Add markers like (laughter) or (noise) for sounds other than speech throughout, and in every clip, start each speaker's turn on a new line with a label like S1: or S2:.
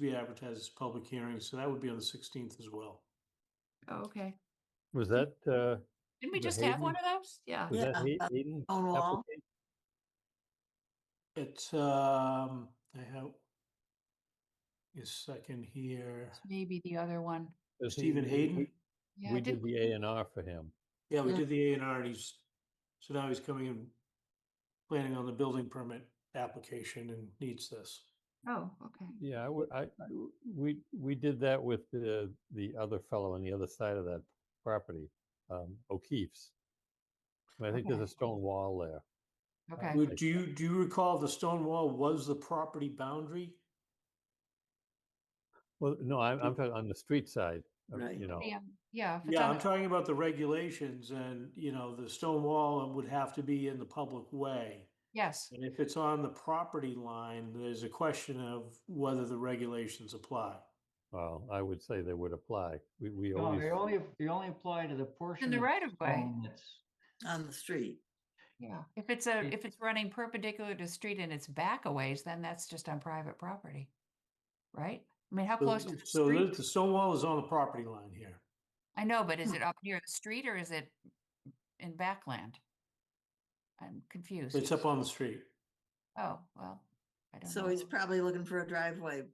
S1: be advertised as public hearing, so that would be on the sixteenth as well.
S2: Oh, Okay.
S3: Was that, uh,
S2: Didn't we
S3: The
S2: just have one of those? Yeah. Oh,
S3: was that
S4: Yeah,
S3: Hay-
S4: uh,
S3: Hayden?
S4: Stone Wall.
S3: application?
S1: It's, um, I have a second here.
S2: Maybe the other one.
S3: Was he-
S1: Stephen
S3: we-
S1: Hayden?
S3: we-
S2: Yeah,
S3: We
S2: I did,
S3: did the A and R for him.
S1: Yeah, we
S4: Yeah.
S1: did the A and R and he's, so now he's coming in, planning on the building permit application and needs this.
S2: oh, okay.
S3: Yeah, I would, I, I w- we, we did that with the, the other fellow on the other side of that property, um, O'Keefe's. And I think there's a
S2: Okay.
S3: stone wall there.
S2: Okay.
S1: Would, do you, do you recall the stone wall was the property boundary?
S3: Well, no, I'm, I'm talking on the street side, of-
S4: Right.
S3: you know,
S2: Yeah, Yeah. if it's
S1: Yeah,
S2: on
S1: I'm
S2: the-
S1: talking about the regulations and, you know, the stone wall would have to be in the public way.
S2: Yes,
S1: And if it's on the property line, there's a question of whether the regulations apply.
S3: well, I would say they would apply. We,
S2: Oh,
S3: we
S5: No,
S3: always,
S5: they only, they only apply to the portion.
S2: in the
S5: of
S2: right of
S1: Um,
S2: way.
S5: stone that's-
S4: on the street.
S2: Yeah. If it's a,
S5: It-
S2: if it's running perpendicular to the street and it's back a ways, then that's just on private property. Right? I mean, how
S1: So-
S2: close to the
S1: So the,
S2: street?
S1: the stone wall is Hmm. on the property line here.
S2: I know, but is it up near the street or is it in backland? I'm confused.
S1: It's up on the street,
S2: Oh, well, I don't know.
S4: So he's probably looking for a driveway.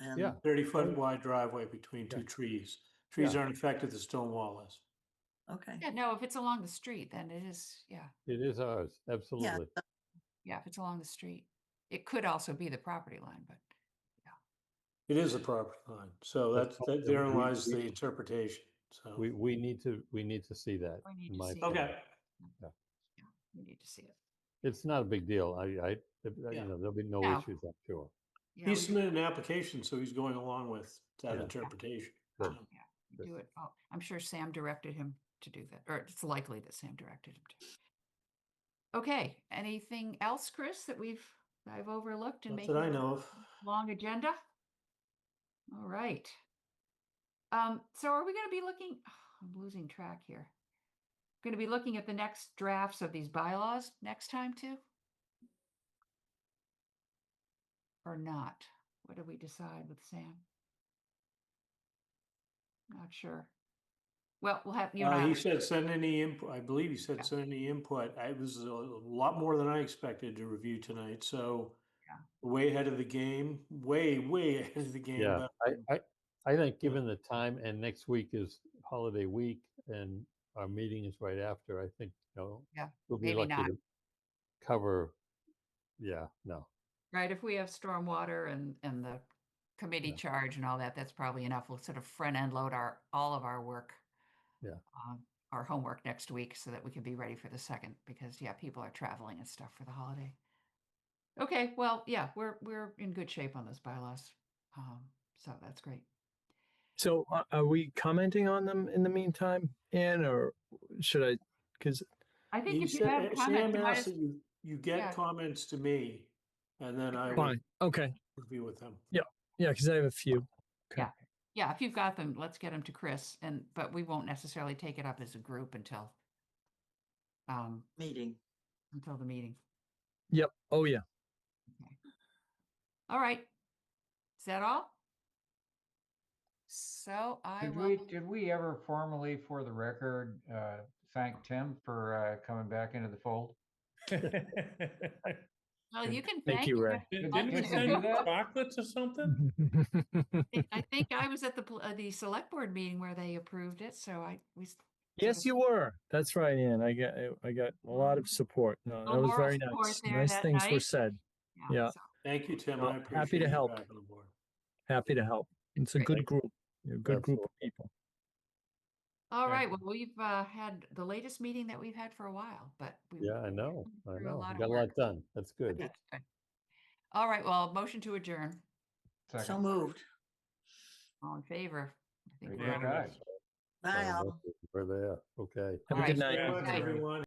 S4: And
S3: yeah,
S1: thirty foot wide driveway between
S3: Mm. Yeah.
S1: two trees. Trees
S3: Yeah.
S1: aren't affected, the stone wall is.
S4: Okay.
S2: Yeah, no, if it's along the street, then it is, yeah,
S3: it is ours, absolutely.
S4: so-
S2: yeah, if it's along the street. It could also be the property line, but
S1: It is the property line, so that's,
S3: That's fine,
S1: that
S3: then
S1: therein
S3: we-
S1: lies
S3: we-
S1: the interpretation, so.
S3: We, we need to, we need to see that.
S2: We need to
S3: in my
S2: see it.
S3: opinion.
S1: Okay,
S2: we need to see it.
S3: It's not a big deal. I, I, I-
S1: Yeah.
S3: you know, there'll be no
S2: No.
S3: issues, I'm sure.
S2: Yeah,
S1: he
S2: we
S1: submitted an application, so he's going along with that
S3: Yeah.
S1: interpretation.
S3: Good.
S1: so.
S2: could Do it. Oh, I'm sure Sam directed him to do that, or it's likely that Sam directed him to. Okay, anything else, Chris, that we've, that I've overlooked and
S1: Not
S2: making
S1: that I
S2: this
S1: know of.
S2: long agenda? All right. Um, so are we gonna be looking, (sighs) I'm losing track here. Gonna be looking at the next drafts of these bylaws next time too? Or not? What did we decide with Sam? Not sure. Well, we'll have, you and I
S1: Uh, he
S2: will-
S1: said send any input, I believe he
S2: Yeah.
S1: said send any input. I- It was a lot more than I expected to review tonight, so
S2: Yeah.
S1: way ahead of the game, way, way ahead of the game.
S3: Yeah,
S1: but
S2: Mm-hmm.
S3: I, I, I think given the time and next week is holiday week and our meeting is right after, I think, you know.
S2: Yeah,
S3: We'll be
S2: maybe
S3: lucky
S2: not.
S3: to cover, yeah, no,
S2: right, if we have stormwater and, and the committee
S3: Yeah.
S2: charge and all that, that's probably enough. We'll sort of front end load our, all of our work.
S3: Yeah.
S2: um, Our homework next week so that we can be ready for the second, because yeah, people are traveling and stuff for the holiday. Okay, well, yeah, we're, we're in good shape on those bylaws. Um, so that's great.
S6: So a- are we commenting on them in the meantime, Anne, or should I? Because
S2: I think
S1: he
S2: if you
S1: said-
S2: have
S1: uh,
S2: comments,
S1: Sam
S2: you might
S1: asked
S2: as-
S1: that you, you
S2: Yeah.
S1: get comments to me, and then I will
S6: fine, okay,
S1: review with them.
S6: yeah, because I have a few.
S2: yeah, if you've got them, let's get them to Chris and, but we won't necessarily take it up as a group until um,
S4: Meeting.
S2: until the meeting.
S6: Yep.
S2: (laughs)
S6: Oh yeah. (laughs)
S2: All right. Is that all? So I
S5: Did
S2: will,
S5: we, did we ever formally, for the record, uh, thank Tim for, uh, coming back into the fold?
S2: well, you can
S6: Thank
S2: thank.
S6: you,
S2: him.
S6: Ray.
S7: Did-
S5: Did
S7: Didn't we
S2: Alfred
S7: send you
S5: Hitchcock?
S7: chocolates or something?
S2: I- I think I was at the, pl- uh, the select board meeting where they approved it, so I, we. s-
S6: yes, you were. That's right, Anne. I got I got a lot of support. No,
S2: A
S6: that was
S2: moral
S6: very
S2: support
S6: nice.
S2: there
S6: Nice
S2: that
S6: things were
S2: night.
S6: said. Yeah.
S2: so-
S1: Thank you, Tim.
S6: Well,
S1: I
S6: happy to
S1: appreciate you
S6: help.
S1: back on the board.
S6: Happy to help. It's a
S2: Great.
S6: good group. You're a good group of people.
S2: All
S7: Thank
S2: right, well, we've uh, had the latest meeting that we've had for a while, but. we-
S3: yeah, I know, I
S2: through Mm-hmm. a
S3: know.
S2: lot
S3: we
S2: of
S3: Got a
S2: work.
S3: lot done, that's good.
S2: That's good. All right, well, motion to adjourn.
S4: So
S5: Second.
S4: moved.
S2: All in favor? I think
S5: Very
S2: we're
S5: good,
S2: all-
S5: guys.
S4: Bye, all.
S3: We're there, okay.
S6: Have a
S2: Alright,
S6: good
S2: so
S6: night.
S1: Good luck,
S2: Thank you.
S1: everyone.